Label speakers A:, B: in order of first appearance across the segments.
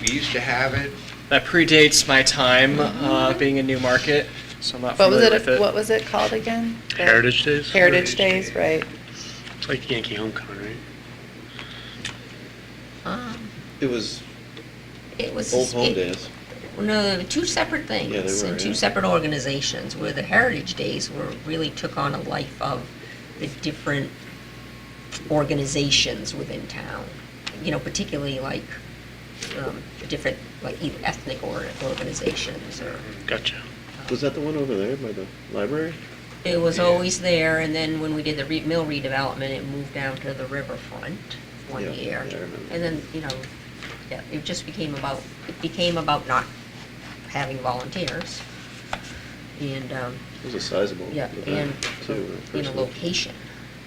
A: We used to have it.
B: That predates my time uh, being in Newmarket, so I'm not
C: What was
B: familiar
C: it,
B: with it.
C: what was it called again? The
D: Heritage Days?
C: Heritage Days, right.
D: It's like Yankee Homecoming, right?
E: Um,
F: It was
E: It was.
F: Old Home
E: it-
F: Days.
E: No, they were two separate things
F: were,
E: and
F: yeah.
E: two separate organizations, where the Heritage Days were, really took on a life of the different organizations within town. You know, particularly like, um, the different, like either ethnic or organizations or. uh,
D: Gotcha.
F: Was that the one over there by the library?
E: It was always there, and then when we did the re- mill redevelopment, it moved down to the riverfront
F: Yeah,
E: one year.
F: yeah, I remember.
E: And then, you know, yeah, it just became about, it became about not having volunteers. And, um,
F: It was a sizable
E: yeah,
F: event,
E: and,
F: too. when
E: you know,
F: it first opened.
E: location.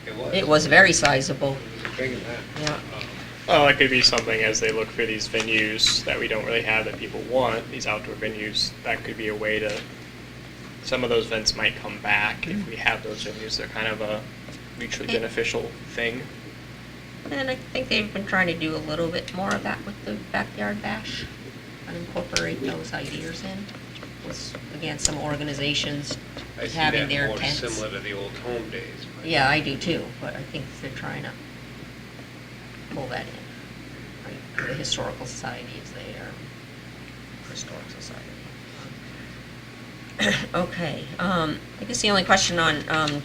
A: It was.
E: It was very sizable,
A: It was a big event. Um,
E: yeah.
G: Well, Oh, it could be something as they look for these venues that we don't really have that people want, these outdoor venues, that could be a way to, some of those events might come back if we have those venues. They're kind of a mutually beneficial thing.
E: And I think they've been trying to do a little bit more of that with the backyard bash and incorporate those ideas in. Was, again, some organizations
A: I see
E: having
A: that
E: their
A: more
E: tents.
A: Similar to the old home days. but-
E: Yeah, I do too, but I think they're trying to pull that in. Like, The Historical Society is there, Historic Society. Okay, um, I guess the only question on, um,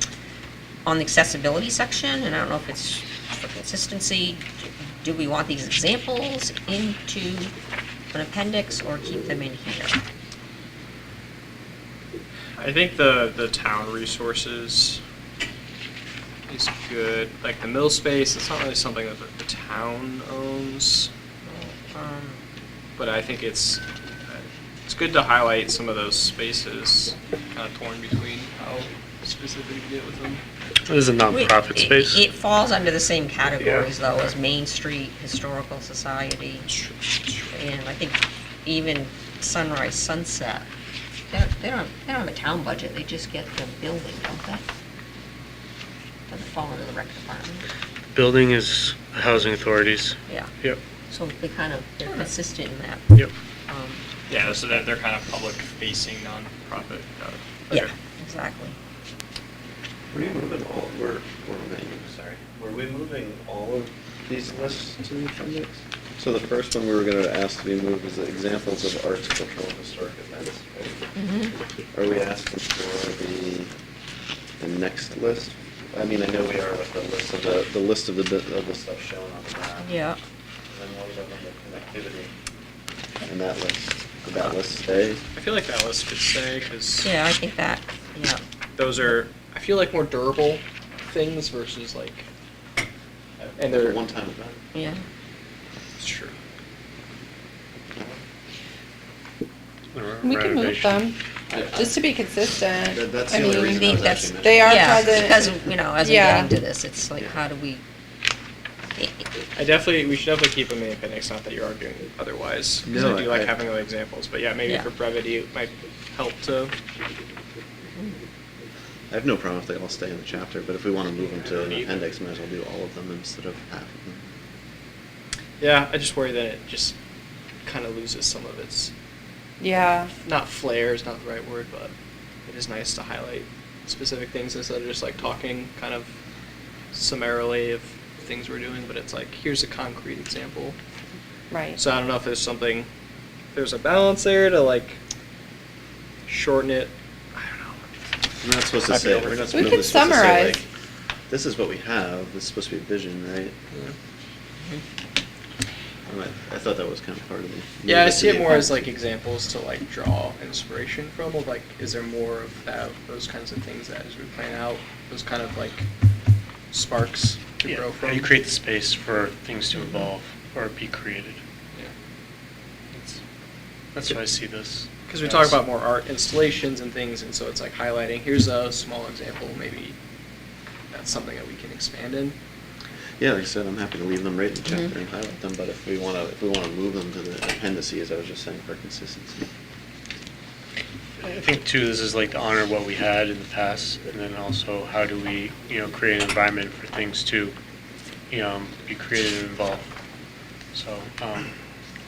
E: on the accessibility section, and I don't know if it's for consistency, do we want these examples into an appendix or keep them in here?
G: I think the, the town resources is good. Like the mill space, it's not really something that the, the town owns,
E: Um,
G: but I think it's, it's good to highlight some of those spaces kind of torn between how specifically we deal with them.
D: This is a
E: Wait,
D: nonprofit
E: it-
D: space.
E: It falls under the same categories, though, as Main Street Historical Society, and I think even Sunrise Sunset. They don't, they don't they don't have a town budget, they just get the building, don't they? Doesn't fall under the rec department,
D: Building is housing authorities.
E: yeah.
D: Yep.
E: So they kind of, they're consistent in that.
D: Yep.
E: um,
G: Yeah, so they're, they're kind of public-facing nonprofit. got it.
E: Yeah,
G: Okay.
E: exactly.
F: Were you moving all, were, were we, sorry, were we moving all of these lists to the appendix? So the first one we were gonna ask to be moved is the examples of arts, cultural, and historic events. right? Are we asking for the, the next list? I mean, I know we are with the list of the, the list of the, bit- of the stuff shown on the map.
E: Yeah.
F: And then what about the connectivity? And that list, did that list stay?
G: I feel like that list could stay, because
E: Yeah, I think that, yeah.
G: those are, I feel like more durable things versus like, and they're.
F: One time event?
E: Yeah.
G: It's true.
C: We can move
D: Renovation.
C: them,
F: I- I-
C: just to be consistent.
F: That- that's
C: I
F: the only
C: mean,
F: reason I
E: think
F: was
E: that's-
F: actually mentioning
C: They are
E: Yeah,
C: present.
E: Because, you know, as we
C: Yeah.
E: get into this, it's like,
F: Yeah.
E: how do we? i- i-
G: I definitely, we should definitely keep them in the appendix, not that you're arguing otherwise, 'cause
F: No,
G: I do
F: I-
G: like having the examples, but yeah, maybe
E: Yeah.
G: for brevity, it might help to,
F: I have no problem if they all stay in the chapter, but if we want to move them to an appendix, might as well do all of them instead of half of them.
G: yeah, I just worry that it just kind of loses some of its,
C: Yeah,
G: not flair is not the right word, but it is nice to highlight specific things instead of just like talking kind of summarily of things we're doing, but it's like, here's a concrete example.
C: right.
G: So I don't know if there's something, there's a balance there to like shorten it. I don't know.
F: We're not supposed to
G: Might be
F: say,
G: over.
F: we're not
C: We
F: supposed
C: could
F: to supposed to say,
C: summarize.
F: like, this is what we have, this is supposed to be a vision, right? I might- I thought that was kind of part of the.
G: Yeah,
F: move
G: I
F: to
G: see it
F: the
G: more as like
F: appendix.
G: examples to like draw inspiration from. Of like, is there more of that? Those kinds of things that as we plan out, those kind of like sparks to
D: Yeah,
G: grow
D: how
G: from.
D: you create the space for things to evolve or be created.
G: Because
D: That's- That's what I see this.
G: we talk
D: as.
G: about more art installations and things, and so it's like highlighting. Here's a small example. Maybe that's something that we can expand in.
F: Yeah, like I said, I'm happy to leave them right in the
C: Mm-hmm.
F: chapter and highlight them, but if we want to, if we want to move them to the appendices, I was just saying for consistency.
D: I think too, this is like to honor what we had in the past, and then also how do we, you know, create an environment for things to, you know, be creative and involved. So, um,